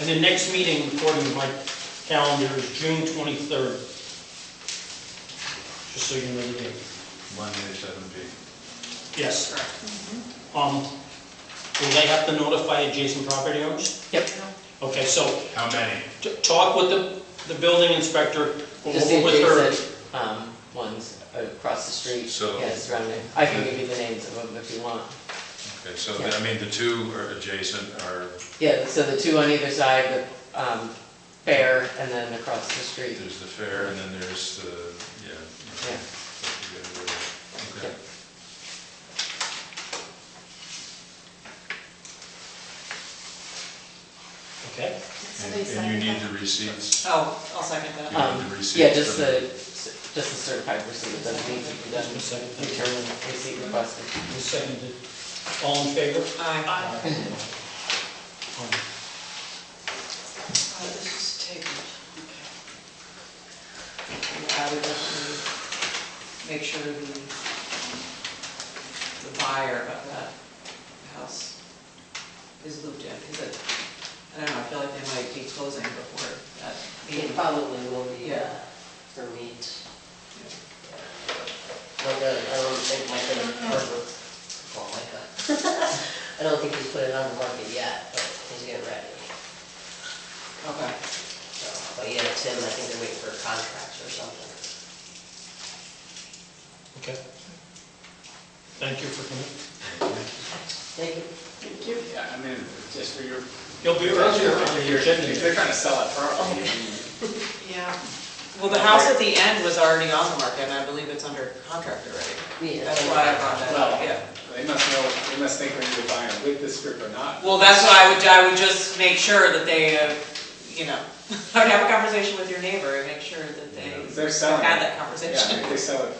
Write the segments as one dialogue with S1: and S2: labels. S1: And the next meeting, according to my calendar, is June twenty-third. Just so you know the date.
S2: Monday, seven P.
S1: Yes. Um, will they have to notify adjacent property owners?
S3: Yep.
S1: Okay, so
S2: How many?
S1: t- talk with the, the building inspector, go
S3: Just the
S1: over with her.
S3: adjacent um, ones across the street.
S2: So-
S3: Yeah, surrounding. I can give you the names of them if you want.
S2: Okay, so, I mean, the two are adjacent are,
S3: Yeah, so the two on either side, the um, fair and then across the street.
S2: there's the fair and then there's the, yeah.
S3: Yeah.
S2: Okay.
S3: Yeah.
S1: Okay,
S2: And and you need the receipts?
S4: Oh, I'll second
S2: You
S4: that.
S3: Um,
S2: need the receipts?
S3: Yeah, just
S2: from-
S3: the, just the certified receipt, it doesn't need to be done,
S1: just a second, thank you.
S3: return receipt requested.
S1: Just seconded. All in favor?
S4: Aye.
S1: Um,
S4: Uh, This is tabled, okay. And I would definitely make sure the, the buyer of that house is looped in, because it, I don't know, I feel like they might be closing before that meeting.
S5: It probably will be uh,
S4: Yeah.
S5: for meat. Like, uh, I don't think Mike and
S4: Mm-hmm.
S5: Herbert, oh my god. I don't think he's put it on the market yet, but he's getting ready.
S4: Okay,
S5: So, But yeah, Tim, I think they're waiting for contracts or something.
S1: Okay. Thank you for coming.
S5: Thank you.
S6: Yeah, I mean, just for your.
S1: You'll be around here on the
S6: If they're
S1: agenda.
S6: trying to sell it properly, I mean,
S4: yeah. Well, the house at the end was already on the market, and I believe it's under contract already.
S5: Yeah.
S4: That's why I brought that up,
S6: Well-
S4: yeah.
S6: they must know, they must think we're either buying with the strip or not.
S4: Well, that's what I would, I would just make sure that they, uh, you know, I would have a conversation with your neighbor and make sure that they
S6: If
S4: had
S6: They're selling. it.
S4: that
S6: Yeah,
S4: conversation.
S6: if they sell it.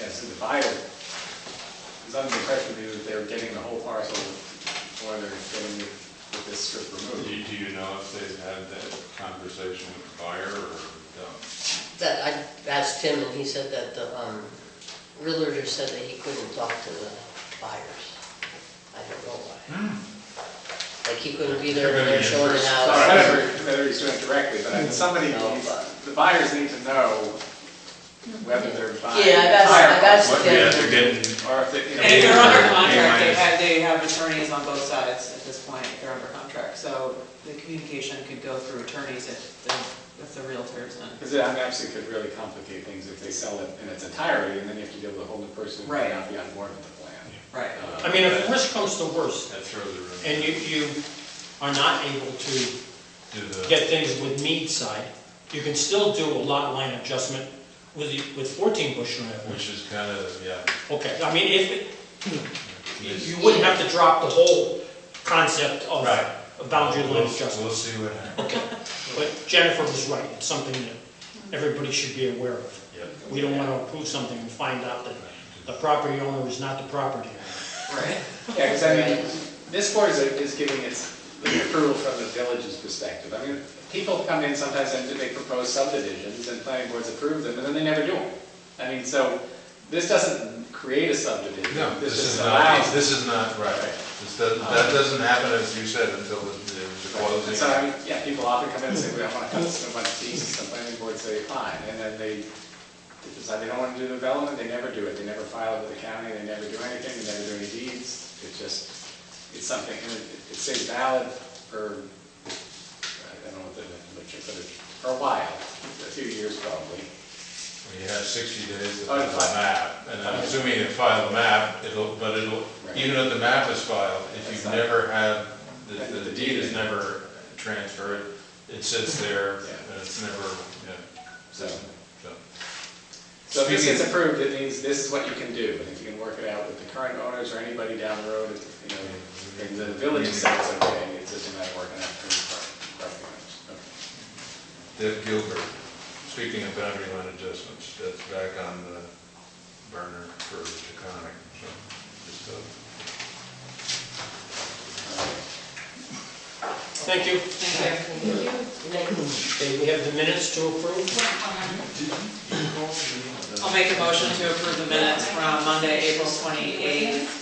S6: Yeah, so the buyer is under the impression that they're getting the whole parcel or they're getting it with this strip
S2: Do
S6: removed.
S2: you- do you know if they've had that conversation with the buyer or don't?
S5: That, I asked Tim and he said that the, um, realtor just said that he couldn't talk to the buyers. I don't know why.
S4: Hmm.
S5: Like he couldn't be there when they're showing it
S4: Uh,
S2: All
S6: Well,
S2: right.
S5: out.
S6: I don't know Whether he's doing it directly, but somebody, the buyers need to know whether they're buying.
S5: Yeah, I've asked- I've asked
S2: What-
S5: Tim.
S2: Yeah, they're getting,
S6: Or if they, you know.
S4: And if they're under
S2: Yeah.
S4: contract, they
S2: Yeah.
S4: have, they have attorneys on both sides at this point, if they're under contract. So the communication could go through attorneys if, the- if the realtors and.
S6: Because it actually could really complicate things if they sell it in its entirety, and then you have to deal with a whole new person who may
S4: Right.
S6: not be on board with the plan.
S4: Right.
S6: Uh,
S1: I mean, if worst comes to worst,
S2: that throws a room.
S1: and you, you are not able to
S2: Do the-
S1: get things with mead side, you can still do a lot line adjustment with, the- with 14 bush unit.
S2: Which is kind of, yeah.
S1: Okay, I mean, if, it-
S2: it's-
S1: you wouldn't have to drop the whole concept of
S2: Right.
S1: a boundary line
S2: We'll-
S1: adjustment.
S2: We'll see what happens.
S1: Okay, but Jennifer was right, it's something that everybody should be aware of.
S2: Yep.
S1: We don't want to approve something and find out that the property owner is not the property owner.
S4: Right.
S6: Yeah, because I mean, this board is, is giving its approval from the village's perspective. I mean, people come in sometimes and they propose subdivisions, and planning boards approve them, and then they never do them. I mean, so, this doesn't create a subdivision.
S2: No, this
S6: just
S2: is
S6: allows
S2: not,
S6: it.
S2: this is not right. This doesn't, that doesn't happen, as you said, until the the
S6: And so, I
S2: closing.
S6: mean, yeah, people often come in and say, we don't want to cut so much pieces, the planning board say, fine, and then they decide they don't want to do development, they never do it, they never file it with the county, they never do anything, they never do any deeds, it's just, it's something, and it it stays valid for, I don't know what the literature, but it- for a while, a few years probably.
S2: You have sixty days to
S6: Oh,
S2: file
S6: fine.
S2: a map, and I'm assuming you file a map, it'll, but it'll,
S6: Right.
S2: even if the map is filed, if
S6: That's
S2: you've
S6: not-
S2: never had, the-
S6: That's
S2: the
S6: the
S2: deed is
S6: deed.
S2: never transferred, it sits there,
S6: Yeah.
S2: and it's never, yeah, so.
S6: So, so if this
S2: Speaking-
S6: gets approved, it means this is what you can do, and if you can work it out with the current owners or anybody down the road, if, you know, and the village says it's okay, it's just a matter of working out through the property owners. Okay.
S2: Deb Gilbert, speaking of boundary line adjustments, that's back on the burner for Taconic, so just, uh,
S1: Thank you.
S4: Thank you.
S1: Okay, we have the minutes to approve.
S4: I'll make a motion to approve the minutes from Monday, April 28th,